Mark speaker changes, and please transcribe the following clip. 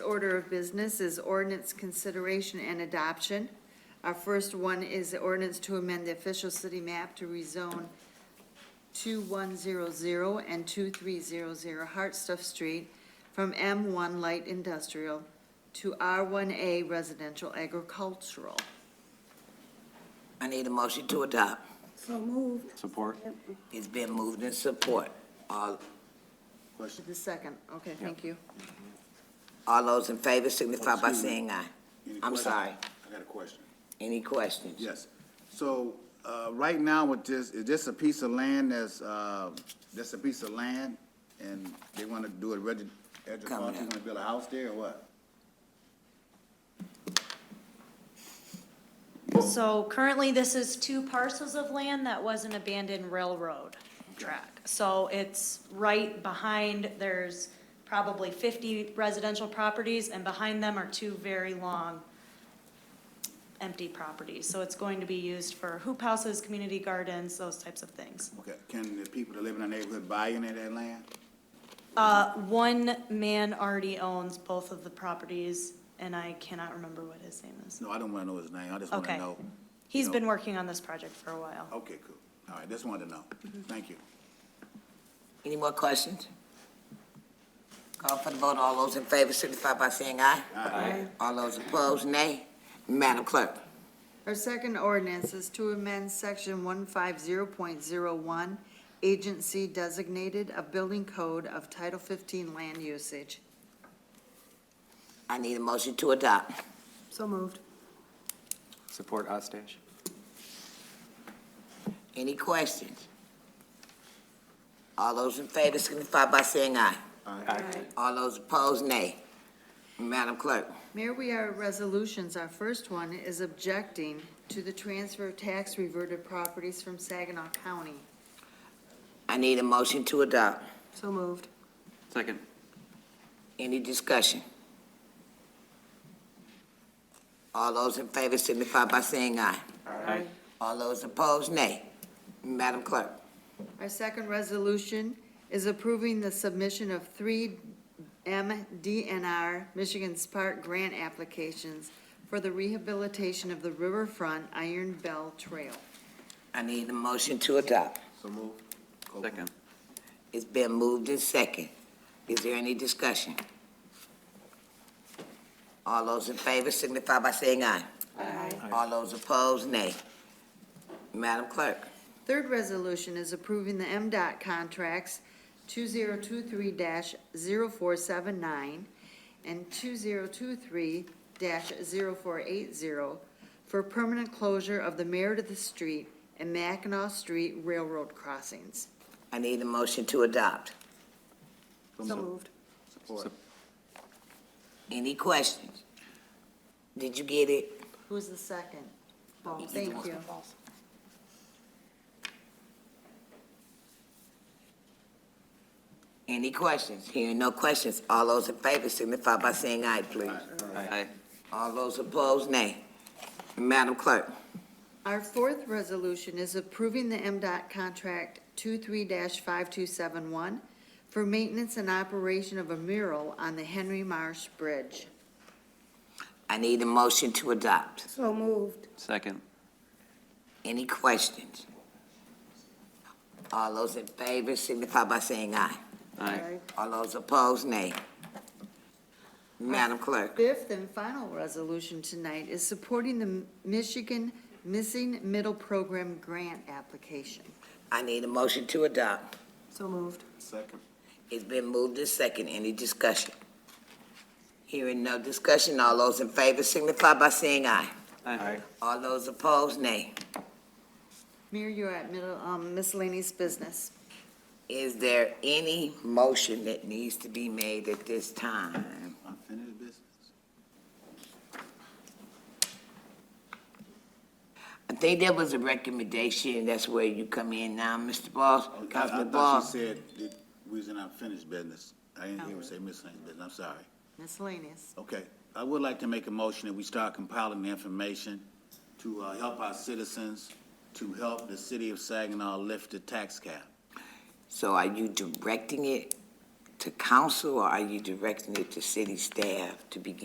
Speaker 1: order of business is ordinance consideration and adoption. Our first one is the ordinance to amend the official city map to rezone 2100 and 2300 Hartstuff Street from M1 Light Industrial to R1A Residential Agricultural.
Speaker 2: I need a motion to adopt.
Speaker 3: So moved.
Speaker 4: Support?
Speaker 2: It's been moved in support. All,
Speaker 1: The second, okay, thank you.
Speaker 2: all those in favor signify by
Speaker 5: Excuse me.
Speaker 2: saying aye.
Speaker 5: Any
Speaker 2: I'm
Speaker 5: question?
Speaker 2: sorry.
Speaker 5: I got a question.
Speaker 2: Any questions?
Speaker 5: Yes. So, uh, right now with this, is this a piece of land that's, uh, that's a piece of land and they want to do a regi, agriculture,
Speaker 2: Coming
Speaker 5: want
Speaker 2: up.
Speaker 5: to build a house there or what?
Speaker 6: So currently, this is two parcels of land that was an abandoned railroad track. So it's right behind, there's probably fifty residential properties, and behind them are two very long empty properties. So it's going to be used for hoop houses, community gardens, those types of things.
Speaker 5: Okay, can the people that live in the neighborhood buy any of that land?
Speaker 6: Uh, one man already owns both of the properties, and I cannot remember what his name is.
Speaker 5: No, I don't want to know his name. I just want to
Speaker 6: Okay.
Speaker 5: know.
Speaker 6: He's
Speaker 5: No.
Speaker 6: been working on this project for a while.
Speaker 5: Okay, cool. All right, just wanted to know. Thank you.
Speaker 2: Any more questions? Call for the vote. All those in favor signify by saying aye. Aye. All those opposed, nay. Madam Clerk,
Speaker 1: Our second ordinance is to amend section one five zero point zero one, agency designated of building code of title fifteen land usage.
Speaker 2: I need a motion to adopt.
Speaker 1: So moved.
Speaker 4: Support Ostache?
Speaker 2: Any questions? All those in favor signify by saying aye.
Speaker 4: Aye.
Speaker 2: All those opposed, nay. Madam Clerk,
Speaker 1: Mayor, we are at resolutions. Our first one is objecting to the transfer of tax reverted properties from Saginaw County.
Speaker 2: I need a motion to adopt.
Speaker 1: So moved.
Speaker 4: Second.
Speaker 2: Any discussion? All those in favor signify by saying aye.
Speaker 1: Aye.
Speaker 2: All those opposed, nay. Madam Clerk,
Speaker 1: Our second resolution is approving the submission of three MDNR Michigan Spark grant applications for the rehabilitation of the riverfront Iron Bell Trail.
Speaker 2: I need a motion to adopt.
Speaker 5: So move. Copeland.
Speaker 4: Second.
Speaker 2: It's been moved and second. Is there any discussion? All those in favor signify by saying aye. Aye. All those opposed, nay. Madam Clerk,
Speaker 1: Third resolution is approving the MDOT contracts 2023-0479 and 2023-0480 for permanent closure of the Meredith Street and Mackinac Street Railroad crossings.
Speaker 2: I need a motion to adopt.
Speaker 5: So moved. Support.
Speaker 2: Any questions? Did you get it?
Speaker 1: Who's the second? Oh, thank you.
Speaker 2: Any questions? Hearing no questions, all those in favor signify by saying aye, please.
Speaker 4: Aye.
Speaker 2: All those opposed, nay. Madam Clerk,
Speaker 1: Our fourth resolution is approving the MDOT contract 23-5271 for maintenance and operation of a mural on the Henry Marsh Bridge.
Speaker 2: I need a motion to adopt.
Speaker 3: So moved.
Speaker 4: Second.
Speaker 2: Any questions? All those in favor signify by saying aye.
Speaker 4: Aye.
Speaker 2: All those opposed, nay. Madam Clerk,
Speaker 1: Fifth and final resolution tonight is supporting the Michigan Missing Middle Program Grant application.
Speaker 2: I need a motion to adopt.
Speaker 1: So moved.
Speaker 5: Second.
Speaker 2: It's been moved to second. Any discussion? Hearing no discussion, all those in favor signify by saying aye.
Speaker 4: Aye.
Speaker 2: All those opposed, nay.
Speaker 1: Mayor, you're at middle, um, miscellaneous business.
Speaker 2: Is there any motion that needs to be made at this time?
Speaker 5: Unfinished business?
Speaker 2: I think there was a recommendation, that's where you come in now, Mr. Boss,
Speaker 5: Oh, I- I
Speaker 2: Councilman
Speaker 5: thought
Speaker 2: Boss.
Speaker 5: she said that we was in unfinished business. I didn't hear her say miscellaneous business. I'm sorry.
Speaker 1: Miscellaneous.
Speaker 5: Okay, I would like to make a motion that we start compiling the information to uh, help our citizens, to help the city of Saginaw lift the tax cap.
Speaker 2: So are you directing it to council, or are you directing it to city staff to begin?